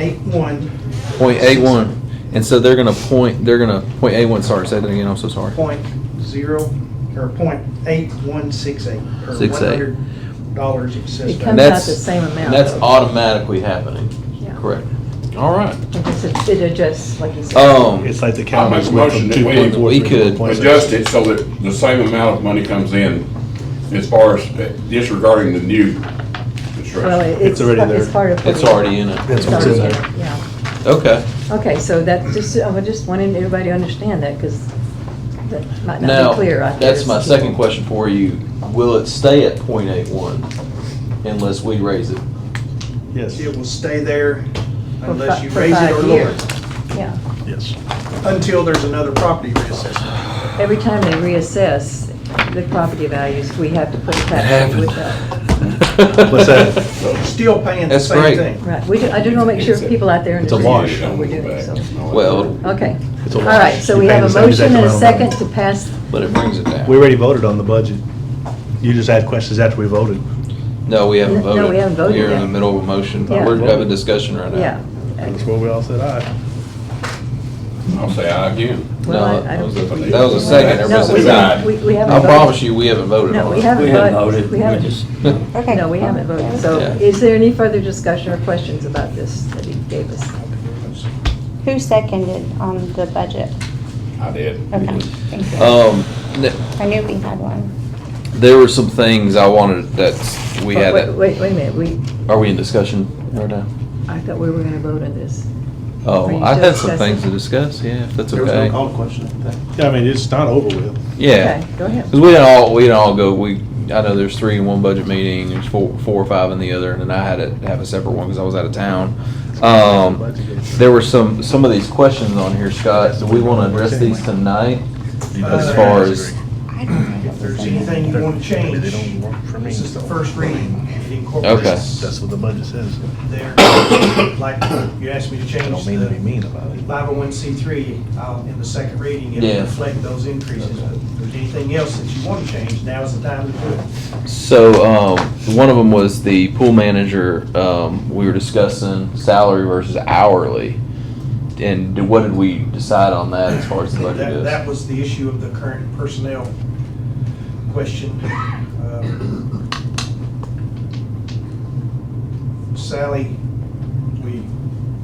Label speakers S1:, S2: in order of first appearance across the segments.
S1: Eight one,
S2: Point A one, and so they're gonna point, they're gonna, point A one, sorry, say that again, I'm so sorry.
S1: point zero, or point eight one six eight. or
S2: Six eight.
S1: $100 Dollars it says.
S3: It
S1: down.
S2: And
S3: comes out
S2: that's-
S3: the same amount,
S2: and that's
S3: though.
S2: automatically happening,
S3: Yeah.
S2: correct? All right.
S3: Like I said, it adjusts, like you said.
S2: Um,
S4: It's like the
S5: I'll make
S4: county's
S5: a
S4: went from
S5: motion that
S4: two
S5: we-
S4: point four
S2: we
S4: three to
S2: could
S4: one point six.
S5: adjust it so that the same amount of money comes in as far as disregarding the new
S3: Well,
S5: construction.
S3: it- it's,
S4: It's already
S3: it's
S4: there.
S3: part of.
S2: it's already in it.
S4: That's what's in there.
S3: Yeah,
S2: Okay,
S3: okay, so that's just, I was just wanting everybody to understand that, because that might not
S2: now,
S3: be clear out there.
S2: that's my second question for you, will it stay at point eight one unless we raise it?
S4: Yes,
S1: It will stay there
S3: For
S1: unless
S3: fi-
S1: you
S3: for
S1: raise it
S3: five
S1: or lower
S3: years.
S1: it,
S3: Yeah,
S4: yes.
S1: until there's another property reassessment.
S3: every time they reassess the property values, we have to put a tax rate with that.
S4: What's that?
S1: You're Still paying the
S2: That's
S1: same
S2: great.
S1: thing.
S3: Right, we, do- I do want to make sure people out there
S4: It's a
S3: understand
S4: wash.
S3: what we're doing, so,
S2: Well,
S3: okay.
S4: It's a
S3: All
S4: wash.
S3: right, so
S4: You're
S3: we
S4: paying
S3: have a
S4: the same exact
S3: motion and a
S4: amount of money.
S3: second to pass,
S2: but it brings it down.
S4: We already voted on the budget. You just had questions after we voted.
S2: No, we haven't
S3: No,
S2: voted.
S3: we haven't voted
S2: We're in
S3: yet.
S2: the middle of a motion,
S3: Yeah.
S2: we're having a discussion right now.
S3: yeah.
S4: That's where we all said aye.
S5: I'll say aye again.
S3: Well, I-
S2: No,
S3: I
S2: that
S3: don't
S2: was a,
S3: think we-
S2: that was a second,
S3: No,
S2: everybody
S3: we
S2: said aye.
S3: haven't- We, we haven't
S2: I
S3: voted.
S2: promise you, we haven't voted
S3: No,
S2: on
S3: we
S2: it.
S3: haven't
S6: We haven't
S3: voted.
S6: voted,
S3: We
S6: we
S3: haven't.
S6: just,
S7: Okay.
S3: No, we haven't voted. So
S2: Yeah.
S3: is there any further discussion or questions about this that he gave us?
S7: Who seconded on the budget?
S5: I did.
S7: Okay, thank you.
S2: Um, th-
S7: I knew we had one.
S2: there were some things I wanted that we had,
S3: Wait,
S2: that-
S3: Wait, wait a minute, we,
S2: are we in discussion right now?
S3: I thought we were gonna vote on this. Are
S2: Oh,
S3: you
S2: I
S3: still
S2: had some things to
S3: discussing?
S2: discuss, yeah, if that's
S8: There was no
S2: okay.
S8: call question, I think.
S4: Yeah, I mean, it's not over with.
S2: Yeah,
S3: Okay, Go ahead.
S2: because we didn't all, we didn't all go, we, I know there's three in one budget meeting, there's four, four or five in the other, and then I had to have a separate one because I was out of town. Um, there were some, some of these questions on here, Scott, do we want to address these tonight?
S1: Uh,
S2: As far as,
S7: I don't know.
S1: If there's anything you want to change,
S4: They don't work for me.
S1: this is the first reading. It
S4: That's
S1: incorporates
S4: what the budget says.
S1: there, like you asked me to
S4: I
S1: change
S4: don't mean to be
S1: the
S4: mean about it.
S1: 501c3 um, in the second reading. It
S2: Yeah.
S1: will reflect those increases. But If there's anything else that you want to change, now's the time to do it.
S2: so, um, one of them was the pool manager, um, we were discussing salary versus hourly. And what did we decide on that as far as the budget
S1: That,
S2: is?
S1: that was the issue of the current personnel question. Um, Sally, we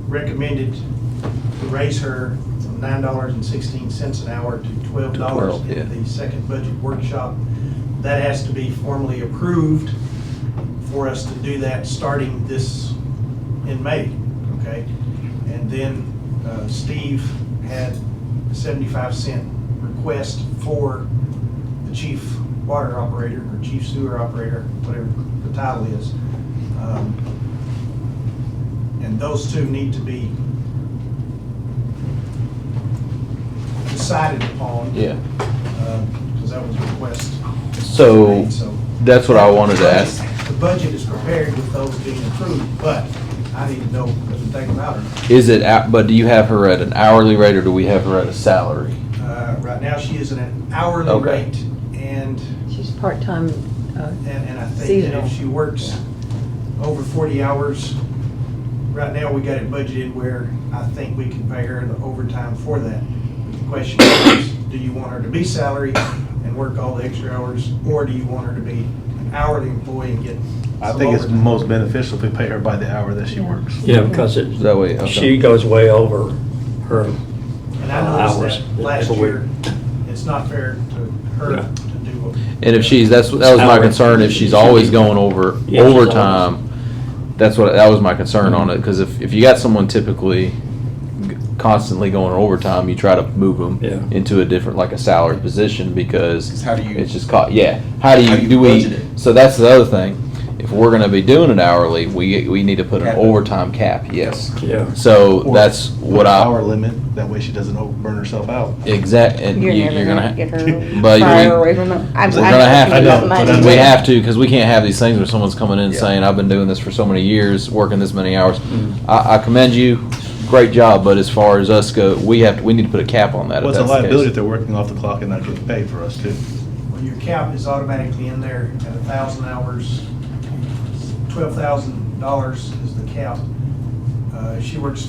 S1: recommended to raise her from nine dollars and sixteen cents an hour to twelve
S2: To
S1: dollars
S2: 12,
S1: in
S2: yeah.
S1: the second budget workshop. That has to be formally approved for us to do that starting this, in May, okay? And then uh, Steve had a 75 cent request for the chief water operator, or chief sewer operator, whatever the title is. Um, And those two need to be decided upon.
S2: Yeah,
S1: Because that was a request.
S2: so,
S1: made, So
S2: that's what I wanted to ask.
S1: the budget is prepared with those being approved, but I need to know, doesn't take them out or not.
S2: Is it, at- but do you have her at an hourly rate or do we have her at a salary?
S1: Uh, Right now, she is at an hourly
S2: Okay.
S1: rate, and,
S3: She's part-time, uh,
S1: and and I think that
S3: seasonal.
S1: if she works over 40 hours, right now, we got it budgeted where I think we can pay her the overtime for that. The question is, do you want her to be salaried and work all the extra hours, or do you want her to be an hourly employee and get
S4: I
S1: some
S4: think it's
S1: overtime?
S4: most beneficial if we pay her by the hour that she works.
S6: yeah, because
S2: Is that
S6: it,
S2: way? okay.
S6: she goes way over her,
S1: And I noticed
S6: Hours
S1: that last
S6: every
S1: year,
S6: week.
S1: it's not fair to her
S6: Yeah.
S1: to do what.
S2: And if she's, that's, that was my concern, if she's always going over
S6: Yeah, she's always-
S2: overtime, that's what, that was my concern on it, because if, if you got someone typically g- constantly going overtime, you try to move them
S6: Yeah.
S2: into a different, like a salary position, because
S8: how do
S2: it's just caught, yeah. How do
S8: How
S2: you,
S8: you
S2: do
S8: budget
S2: we,
S8: it.
S2: so that's the other thing, if we're gonna be doing it hourly, we, we need to put an
S8: Cap it.
S2: overtime cap, yes.
S6: yeah.
S2: So
S4: Or
S2: that's what
S4: Hour
S2: I,
S4: limit, that way she doesn't over- burn herself out.
S2: exact, and you- you're
S7: You're never gonna
S2: gonna,
S7: get her
S2: But
S7: far
S2: we-
S7: away from them. I'm, I'm
S2: We're gonna have
S7: talking
S4: to. I know,
S7: about
S4: but
S7: money.
S4: I'm-
S2: We have to, because we can't have these things where someone's coming in
S4: Yeah.
S2: saying, I've been doing this for so many years, working this many hours.
S4: Mm-hmm.
S2: I, I commend you, great job, but as far as us go, we have, to- we need to put a cap on that if
S4: What's a
S2: that's the
S4: liability if
S2: case.
S4: they're working off the clock and not getting paid for us too?
S1: Well, your cap is automatically in there at a thousand hours. Twelve thousand dollars is the cap. Uh, Uh, She works